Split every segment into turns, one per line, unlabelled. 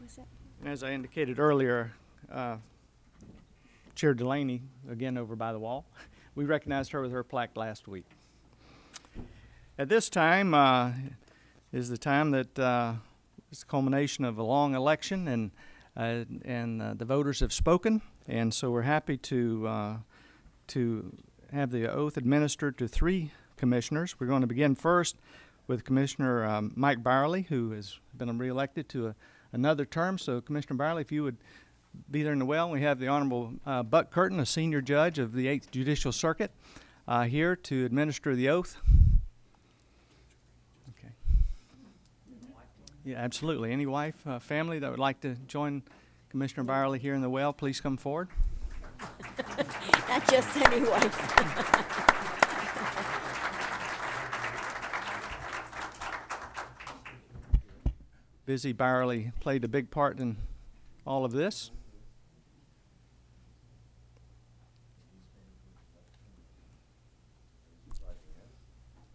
That's it.
As I indicated earlier, uh, Chair Delaney, again over by the wall, we recognized her with her plaque last week. At this time uh, is the time that uh, it's the culmination of a long election, and uh, and uh, the voters have spoken, and so we're happy to uh, to have the oath administered to three commissioners. We're going to begin first with Commissioner um, Mike Byerly, who has been reelected to a, another term. So, Commissioner Byerly, if you would be there in the well, we have the Honorable uh, Buck Curtin, a senior judge of the Eighth Judicial Circuit, uh, here to administer the oath. Okay. Yeah, absolutely. Any wife, uh, family that would like to join Commissioner Byerly here in the well, please come forward.
Not just any wife.
Busy Byerly played a big part in all of this.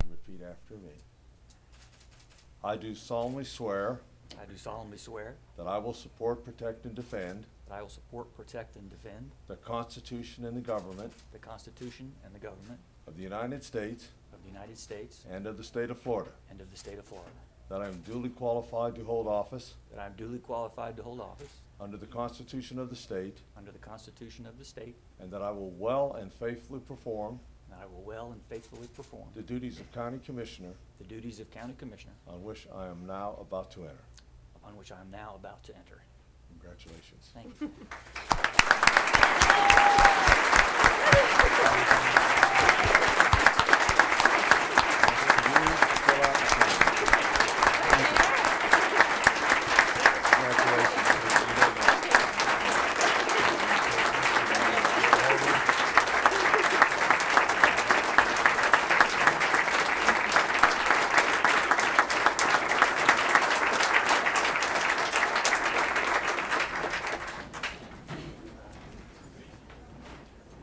Repeat after me. I do solemnly swear
I do solemnly swear
that I will support, protect, and defend
that I will support, protect, and defend
the Constitution and the government
the Constitution and the government
of the United States
of the United States
and of the state of Florida,
and of the state of Florida,
that I am duly qualified to hold office
that I am duly qualified to hold office
under the Constitution of the state,
under the Constitution of the state,
and that I will well and faithfully perform
and I will well and faithfully perform
the duties of County Commissioner
the duties of County Commissioner
on which I am now about to enter.
upon which I am now about to enter.
Congratulations.
Thank you.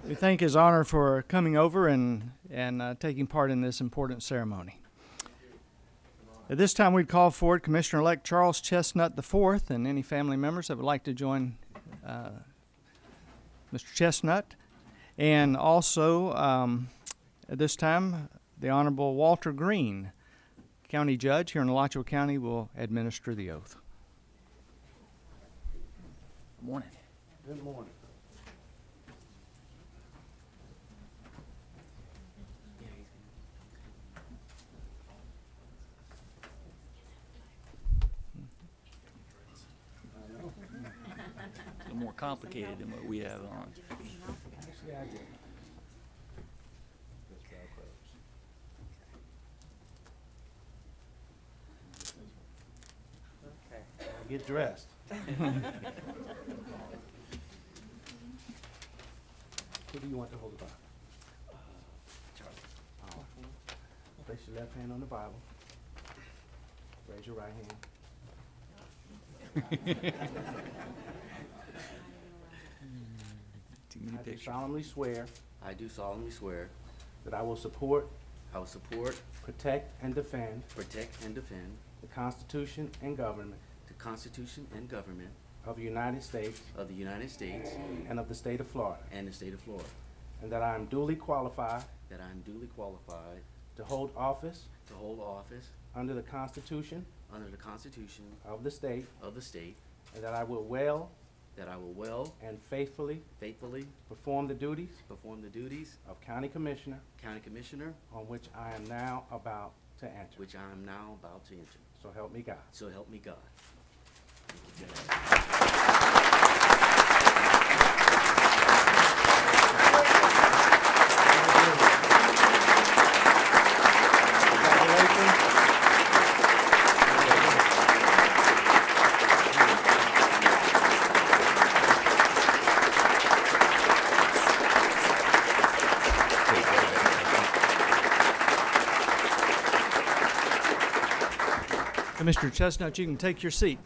We thank His Honor for coming over and, and uh, taking part in this important ceremony. At this time, we'd call forward Commissioner elect Charles Chestnut IV and any family members that would like to join uh, Mr. Chestnut. And also, um, at this time, the Honorable Walter Green, County Judge here in Alachua County, will administer the oath.
Good morning.
Good morning.
A little more complicated than what we have on.
Get dressed. Who do you want to hold the Bible? Charlie. Place your left hand on the Bible. Raise your right hand.
Too many
I do
pictures.
solemnly swear
I do solemnly swear
that I will support,
I will support,
protect, and defend
protect, and defend
the Constitution and government
the Constitution and government
of the United States
of the United States
and of the state of Florida,
and the state of Florida,
and that I am duly qualified
that I am duly qualified
to hold office
to hold office
under the Constitution
under the Constitution
of the state,
of the state,
and that I will well
that I will well,
and faithfully
faithfully
perform the duties
perform the duties
of County Commissioner
of County Commissioner,
on which I am now about to enter.
which I am now about to enter.
So help me God.
So help me God.
Commissioner Uh, Chestnut, you can take your seat.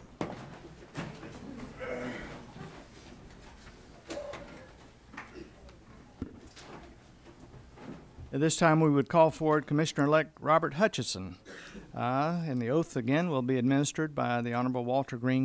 At this time, we would call forward Commissioner-elect Robert Hutchison. Uh, And the oath again will be administered by the Honorable Walter Green,